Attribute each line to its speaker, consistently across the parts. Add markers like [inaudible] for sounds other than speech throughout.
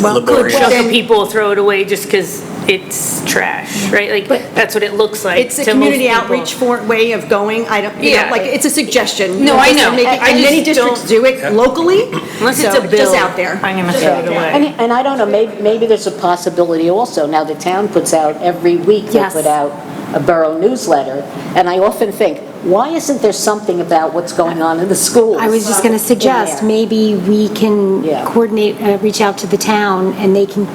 Speaker 1: Well,
Speaker 2: laborious.
Speaker 1: Well,
Speaker 2: Well,
Speaker 1: then-
Speaker 3: chunk of people throw it away just because it's trash, right? Like,
Speaker 1: But-
Speaker 3: that's what it looks like.
Speaker 1: It's a
Speaker 3: to most
Speaker 1: community
Speaker 3: people.
Speaker 1: outreach for, way of going, I don't, you know,
Speaker 3: Yeah.
Speaker 1: like, it's a suggestion.
Speaker 3: No, I
Speaker 1: Just
Speaker 3: know.
Speaker 1: to make it-
Speaker 3: I- I
Speaker 1: And many
Speaker 3: just
Speaker 1: districts do it locally.
Speaker 3: Unless it's
Speaker 1: so
Speaker 3: a bill.
Speaker 1: Just out there.
Speaker 3: I'm gonna throw it
Speaker 4: And,
Speaker 3: away.
Speaker 4: and I don't know, maybe, maybe there's a possibility also, now the town puts out, every week they
Speaker 5: Yes.
Speaker 4: put out a borough newsletter, and I often think, why isn't there something about what's going on in the schools?
Speaker 5: I was just going to suggest,
Speaker 4: Yeah.
Speaker 5: maybe we can
Speaker 4: Yeah.
Speaker 5: coordinate, uh, reach out to the town, and they can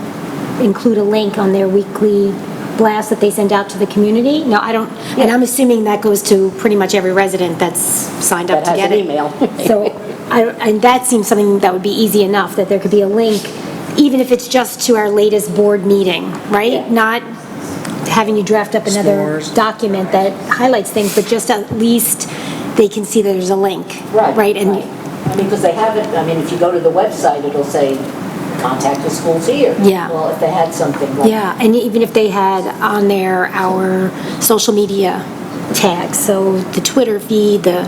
Speaker 5: include a link on their weekly blast that they send out to the community. No, I don't, and I'm assuming that goes to pretty much every resident that's signed up
Speaker 4: That
Speaker 5: to
Speaker 4: has
Speaker 5: get
Speaker 4: an
Speaker 5: it.
Speaker 4: email. [laughs]
Speaker 5: So, I, don't- and that seems something that would be easy enough, that there could be a link, even if it's just to our latest board meeting, right? Not having you draft up another document that highlights things, but just at least they can see that there's a link. Right, and
Speaker 4: I mean, because they haven't, I mean, if you go to the website, it'll say, contact the schools here.
Speaker 5: Yeah.
Speaker 4: Well, if they had something like.
Speaker 5: Yeah, and even if they had on there our social media tags, so the Twitter feed, the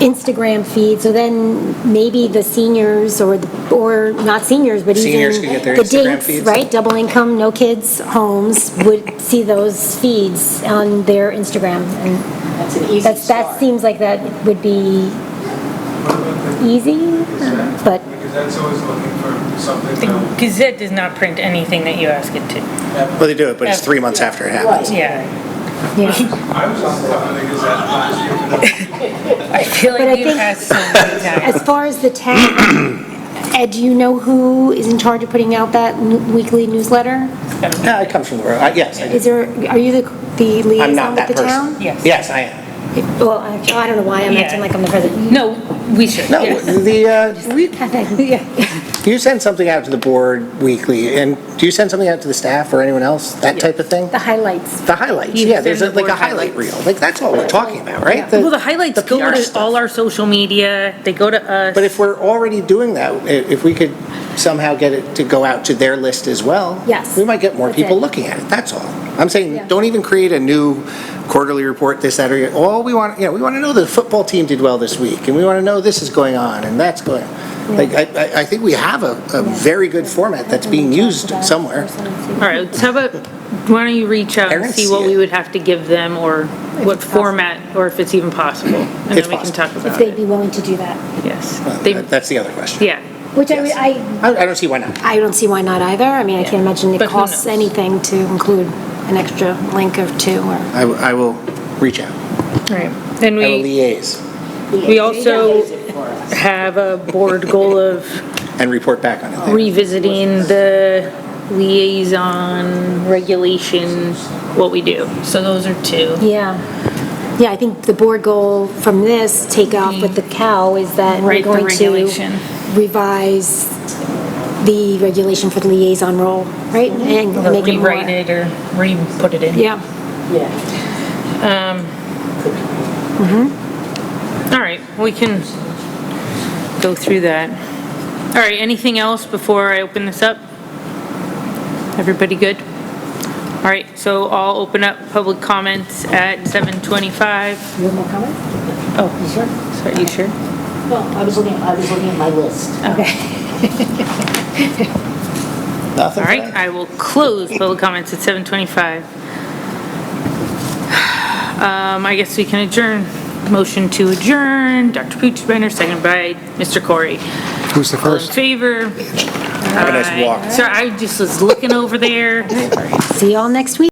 Speaker 5: Instagram feed, so then maybe the seniors or, the or not seniors, but even.
Speaker 2: Seniors could get their
Speaker 5: the
Speaker 2: Instagram
Speaker 5: dates,
Speaker 2: feeds.
Speaker 5: Right, double income, no kids, homes, would see those feeds on their Instagram. And
Speaker 4: That's an easy
Speaker 5: that's, that
Speaker 4: start.
Speaker 5: seems like that would be easy, but
Speaker 6: Because that's always looking for something to
Speaker 3: Gazette does not print anything that you ask it to.
Speaker 2: they do it, but it's three months after it happens.
Speaker 3: Yeah.
Speaker 6: I was on the cover of the Gazette last year. for that.
Speaker 3: I feel
Speaker 5: But I
Speaker 3: like you've
Speaker 5: think-
Speaker 3: asked so
Speaker 1: [laughs]
Speaker 3: many times.
Speaker 5: As far as the town,
Speaker 2: [clears throat]
Speaker 5: Ed, do you know who is in charge of putting out that n- weekly newsletter?
Speaker 2: Yeah, I come from the borough, I- yes, I do.
Speaker 5: Is there, are you the the
Speaker 2: I'm
Speaker 5: liaison
Speaker 2: not
Speaker 5: with
Speaker 2: that
Speaker 5: the town?
Speaker 2: person.
Speaker 3: Yes.
Speaker 2: Yes, I am.
Speaker 5: Well, actually, I don't know why I'm
Speaker 3: Yeah.
Speaker 5: acting like I'm the president.
Speaker 3: No, we should,
Speaker 2: No,
Speaker 3: yes.
Speaker 2: the, uh, [laughs] we-
Speaker 5: Yeah.
Speaker 2: you send something out to the board weekly, and do you send something out to the staff or anyone else, that type of thing?
Speaker 5: The highlights.
Speaker 2: The highlights,
Speaker 3: You
Speaker 2: yeah,
Speaker 3: send
Speaker 2: there's
Speaker 3: the
Speaker 2: a- like a
Speaker 3: board
Speaker 2: highlight
Speaker 3: highlights.
Speaker 2: reel, like, that's all we're talking about, right?
Speaker 3: Well, the highlights
Speaker 2: the
Speaker 3: go
Speaker 2: PR
Speaker 3: to
Speaker 2: stuff.
Speaker 3: all our social media, they go to us.
Speaker 2: But if we're already doing that, i- if we could somehow get it to go out to their list as well.
Speaker 5: Yes.
Speaker 2: We might get more
Speaker 5: That's
Speaker 2: people
Speaker 5: it.
Speaker 2: looking at it, that's all. I'm saying,
Speaker 5: Yeah.
Speaker 2: don't even create a new quarterly report, this, that, or, all we want, you know, we want to know the football team did well this week, and we want to know this is going on, and that's going. Like, I, I- I think we have a, a very good format that's being used somewhere.
Speaker 3: All right, so how about, why don't you reach out
Speaker 2: I
Speaker 3: and
Speaker 2: don't
Speaker 3: see
Speaker 2: see
Speaker 3: what we
Speaker 2: it.
Speaker 3: would have to give them, or what format, or if it's even possible? And
Speaker 2: It's
Speaker 3: then we can
Speaker 2: possible.
Speaker 3: talk
Speaker 5: If
Speaker 3: about
Speaker 5: they'd
Speaker 3: it,
Speaker 5: be willing to do that.
Speaker 3: yes. They-
Speaker 2: That- That's the other question.
Speaker 3: Yeah,
Speaker 5: Which I,
Speaker 2: Yes.
Speaker 5: I,
Speaker 2: I, I don't see why not.
Speaker 5: I don't see why not either. I mean, I
Speaker 3: Yeah.
Speaker 5: can't imagine it
Speaker 3: But who
Speaker 5: costs
Speaker 3: knows?
Speaker 5: anything to include an extra link or two or.
Speaker 2: I, w- I will reach out.
Speaker 3: all right. And
Speaker 2: I will
Speaker 3: we
Speaker 2: liaise
Speaker 3: we also have a board goal of
Speaker 2: and report back on it.
Speaker 3: Oh.
Speaker 2: later.
Speaker 3: revisiting the liaison regulation, what we do. So those are two.
Speaker 5: Yeah. Yeah, I think the board goal from this take off with the cow is that
Speaker 3: Mm-hmm.
Speaker 5: we're
Speaker 3: Right, the
Speaker 5: going to
Speaker 3: regulation.
Speaker 5: revise the regulation for the liaison role, right? And
Speaker 3: Or
Speaker 5: make it more.
Speaker 3: rewrite it, or re-put it in.
Speaker 5: Yeah,
Speaker 4: Yeah.
Speaker 3: All right, we can go through that. All right, anything else before I open this up? Everybody good? All right, so I'll open up public comments at 7:25.
Speaker 4: You have more comments?
Speaker 3: Oh,
Speaker 4: Sure.
Speaker 3: sorry, you sure?
Speaker 4: No, I was looking, I was looking at my list.
Speaker 2: Nothing
Speaker 3: All
Speaker 2: for
Speaker 3: right,
Speaker 2: that?
Speaker 3: I will close public comments at 7:25. Um, I guess we can adjourn. Motion to adjourn, Dr. Poochbender, second by Mr. Corey.
Speaker 7: Who's the
Speaker 3: All in
Speaker 7: first?
Speaker 3: favor?
Speaker 2: Have a nice walk.
Speaker 3: Sorry, I just was looking over there.
Speaker 5: see y'all next week.